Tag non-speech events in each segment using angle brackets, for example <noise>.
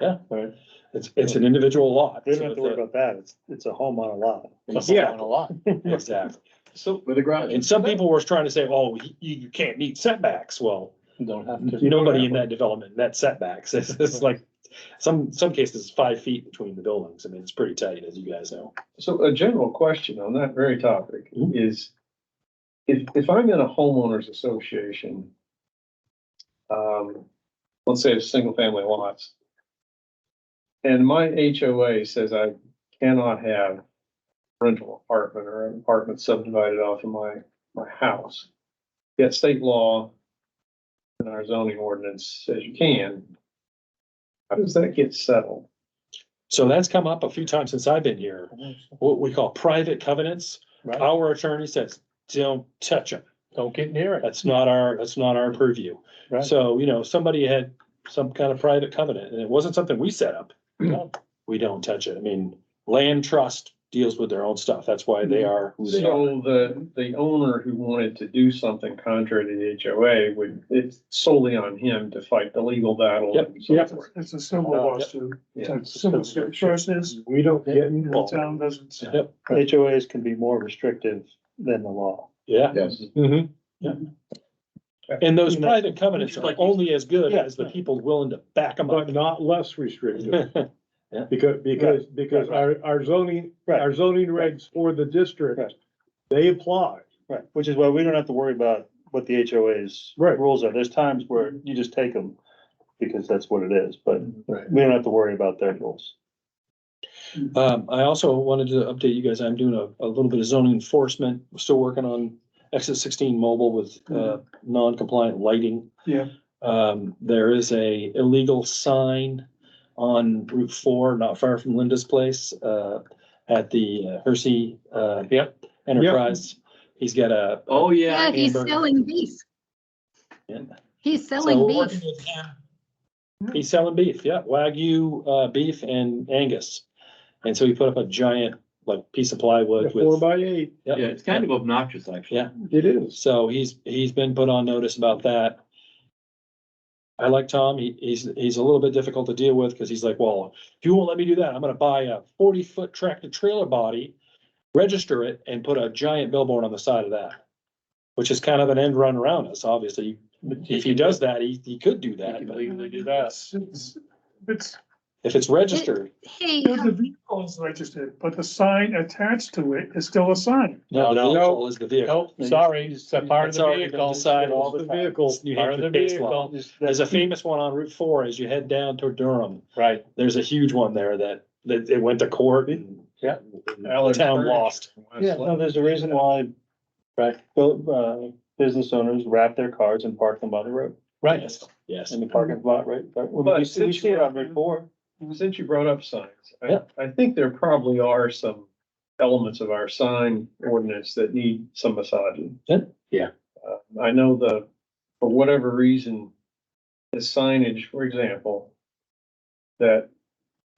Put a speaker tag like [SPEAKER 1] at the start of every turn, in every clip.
[SPEAKER 1] yeah,
[SPEAKER 2] Right.
[SPEAKER 1] it's, it's an individual lot.
[SPEAKER 2] We don't have
[SPEAKER 1] so
[SPEAKER 2] to worry
[SPEAKER 1] it's a-
[SPEAKER 2] about that. It's, it's a home on a lot.
[SPEAKER 1] it's
[SPEAKER 3] Yeah.
[SPEAKER 1] on A lot, <laughs> exactly.
[SPEAKER 3] So,
[SPEAKER 4] With a garage.
[SPEAKER 1] And some people were trying to say, oh, you, you can't meet setbacks. Well,
[SPEAKER 2] Don't have
[SPEAKER 1] nobody in that development met setbacks. <laughs> It's, it's like, some, some cases it's five feet between the buildings. I mean, it's pretty tight, as you guys know.
[SPEAKER 4] So a general question on that very topic
[SPEAKER 1] Mhm.
[SPEAKER 4] is, if, if I'm in a homeowners association, um, let's say it's single family lots, and my HOA says I cannot have rental apartment or an apartment subdivided off of my, my house. Yet state law and our zoning ordinance says you can. How does that get settled?
[SPEAKER 1] So that's come up a few times since I've been here. What we call private covenants.
[SPEAKER 2] Right.
[SPEAKER 1] Our attorney says, don't touch them.
[SPEAKER 2] Don't get near it.
[SPEAKER 1] That's not our, that's not our purview.
[SPEAKER 2] Right.
[SPEAKER 1] So, you know, somebody had some kind of private covenant and it wasn't something we set up.
[SPEAKER 2] No.
[SPEAKER 1] We don't touch it. I mean, land trust deals with their own stuff. That's why they are who they are.
[SPEAKER 4] So the, the owner who wanted to do something contrary to the HOA would, it's solely on him to fight the legal battle.
[SPEAKER 1] Yep,
[SPEAKER 4] and so
[SPEAKER 1] yep.
[SPEAKER 4] forth.
[SPEAKER 5] It's a civil
[SPEAKER 2] Uh,
[SPEAKER 5] lawsuit.
[SPEAKER 4] yeah.
[SPEAKER 5] It's a civil suit. Versus
[SPEAKER 2] We don't
[SPEAKER 1] get
[SPEAKER 5] the town doesn't. say.
[SPEAKER 1] Yep,
[SPEAKER 2] HOAs can be more restrictive than the law.
[SPEAKER 1] yeah.
[SPEAKER 4] Yes.
[SPEAKER 1] Mm-hmm, yeah. And those private covenants are
[SPEAKER 5] Like-
[SPEAKER 1] only as good
[SPEAKER 5] Yeah.
[SPEAKER 1] as the people willing to back them up.
[SPEAKER 6] But not less
[SPEAKER 2] <laughs>
[SPEAKER 6] restrictive, because, because, because our, our zoning,
[SPEAKER 2] Right.
[SPEAKER 6] our zoning regs for the
[SPEAKER 2] Right.
[SPEAKER 6] district, they apply.
[SPEAKER 2] Right, which is why we don't have to worry about what the HOA's
[SPEAKER 6] Right.
[SPEAKER 2] rules are. There's times where you just take them because that's what it is, but
[SPEAKER 4] Right.
[SPEAKER 2] we don't have to worry about their rules.
[SPEAKER 1] Um, I also wanted to update you guys, I'm doing a, a little bit of zoning enforcement, still working on exit sixteen mobile with, uh,
[SPEAKER 6] Mm-hmm.
[SPEAKER 1] non-compliant lighting.
[SPEAKER 5] Yeah.
[SPEAKER 1] Um, there is a illegal sign on Route Four, not far from Linda's place, uh, at the uh, Hersey, uh,
[SPEAKER 2] Yep.
[SPEAKER 1] Enterprise. He's got a,
[SPEAKER 4] Oh,
[SPEAKER 7] Yeah, he's
[SPEAKER 1] Amber.
[SPEAKER 7] selling beef.
[SPEAKER 1] Yeah.
[SPEAKER 7] He's
[SPEAKER 1] So
[SPEAKER 7] selling
[SPEAKER 1] we're working
[SPEAKER 7] beef.
[SPEAKER 1] with him. He's selling beef, yeah, Wagyu, uh, beef and Angus. And so he put up a giant, like, piece of
[SPEAKER 6] The
[SPEAKER 1] plywood
[SPEAKER 6] Four
[SPEAKER 1] with.
[SPEAKER 6] by eight,
[SPEAKER 1] yep,
[SPEAKER 3] yeah, it's kind of obnoxious, actually.
[SPEAKER 1] Yeah.
[SPEAKER 6] it is.
[SPEAKER 1] So he's, he's been put on notice about that. I like Tom, he, he's, he's a little bit difficult to deal with, because he's like, well, if you won't let me do that, I'm gonna buy a forty-foot tractor trailer body. Register it and put a giant billboard on the side of that. Which is kind of an end run around us, obviously, if he does that, he, he could do that, but
[SPEAKER 5] It's, it's, it's,
[SPEAKER 1] if it's registered.
[SPEAKER 7] Hey,
[SPEAKER 5] the vehicle is registered, but the sign attached to it is still a sign.
[SPEAKER 1] No,
[SPEAKER 2] No,
[SPEAKER 1] no,
[SPEAKER 2] no.
[SPEAKER 1] all is the vehicle.
[SPEAKER 2] Oh, sorry, it's a part
[SPEAKER 1] It's already been decided all the
[SPEAKER 6] The
[SPEAKER 1] time.
[SPEAKER 6] vehicle,
[SPEAKER 1] New Hampshire case law. There's
[SPEAKER 2] Hmm.
[SPEAKER 1] a famous one on Route Four as you head down toward Durham.
[SPEAKER 2] Right.
[SPEAKER 1] There's a huge one there that, that it went to court and.
[SPEAKER 2] Yeah.
[SPEAKER 1] and the Town lost.
[SPEAKER 2] Yeah, no, there's a reason why, right, built, uh, business owners wrap their cars and park them by the road. Right.
[SPEAKER 1] Yes, Yes,
[SPEAKER 2] In the parking lot, right? But
[SPEAKER 4] But
[SPEAKER 2] we see, we
[SPEAKER 4] since
[SPEAKER 2] see it
[SPEAKER 4] you're-
[SPEAKER 2] on Route Four.
[SPEAKER 4] Since you brought up signs, I,
[SPEAKER 1] Yeah.
[SPEAKER 4] I think there probably are some elements of our sign ordinance that need some massaging.
[SPEAKER 1] Yeah. Yeah.
[SPEAKER 4] Uh, I know the, for whatever reason, the signage, for example, that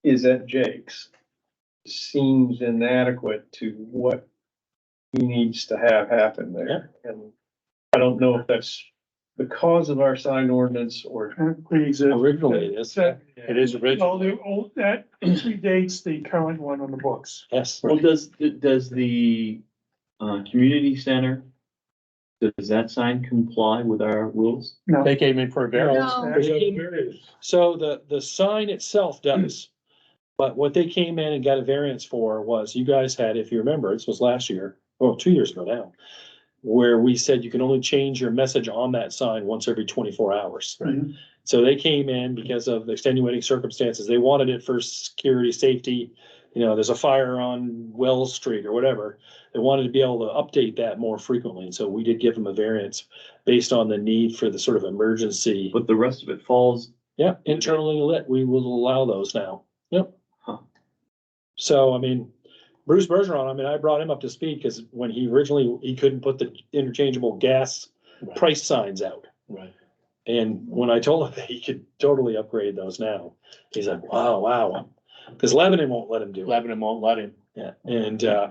[SPEAKER 4] is at Jake's seems inadequate to what he needs to have happen there. And I don't know if that's because of our sign ordinance or.
[SPEAKER 5] Please.
[SPEAKER 1] originally it is,
[SPEAKER 5] Well,
[SPEAKER 4] It is
[SPEAKER 5] the old, that <clears throat> predates the current one on the books.
[SPEAKER 1] yes.
[SPEAKER 3] Well, does, does the, uh, community center, does that sign comply with our rules?
[SPEAKER 5] No.
[SPEAKER 2] They came in for a
[SPEAKER 7] no,
[SPEAKER 1] So the, the sign
[SPEAKER 2] <clears throat>
[SPEAKER 1] itself does. But what they came in and got a variance for was you guys had, if you remember, this was last year, well, two years ago now. Where we said you can only change your message on that sign once every twenty-four hours.
[SPEAKER 5] Right.
[SPEAKER 1] So they came in because of the extenuating circumstances. They wanted it for security, safety. You know, there's a fire on Wells Street or whatever. They wanted to be able to update that more frequently. And so we did give them a variance based on the need for the sort of emergency.
[SPEAKER 3] But the rest of it falls,
[SPEAKER 1] Yeah, internally lit, we will allow those now. Yep.
[SPEAKER 3] Huh.
[SPEAKER 1] So, I mean, Bruce Bergeron, I mean, I brought him up to speed because when he originally, he couldn't put the interchangeable gas
[SPEAKER 2] Right.
[SPEAKER 1] price signs out.
[SPEAKER 2] Right.
[SPEAKER 1] And when I told him <laughs> that he could totally upgrade those now, he's like, wow, wow. Because Lebanon won't let him do it.
[SPEAKER 2] Lebanon won't let him.
[SPEAKER 1] Yeah, and, uh,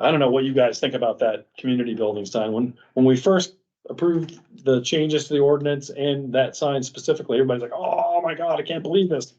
[SPEAKER 1] I don't know what you guys think about that community building sign. When, when we first approved the changes to the ordinance and that sign specifically, everybody's like, oh my God, I can't believe this.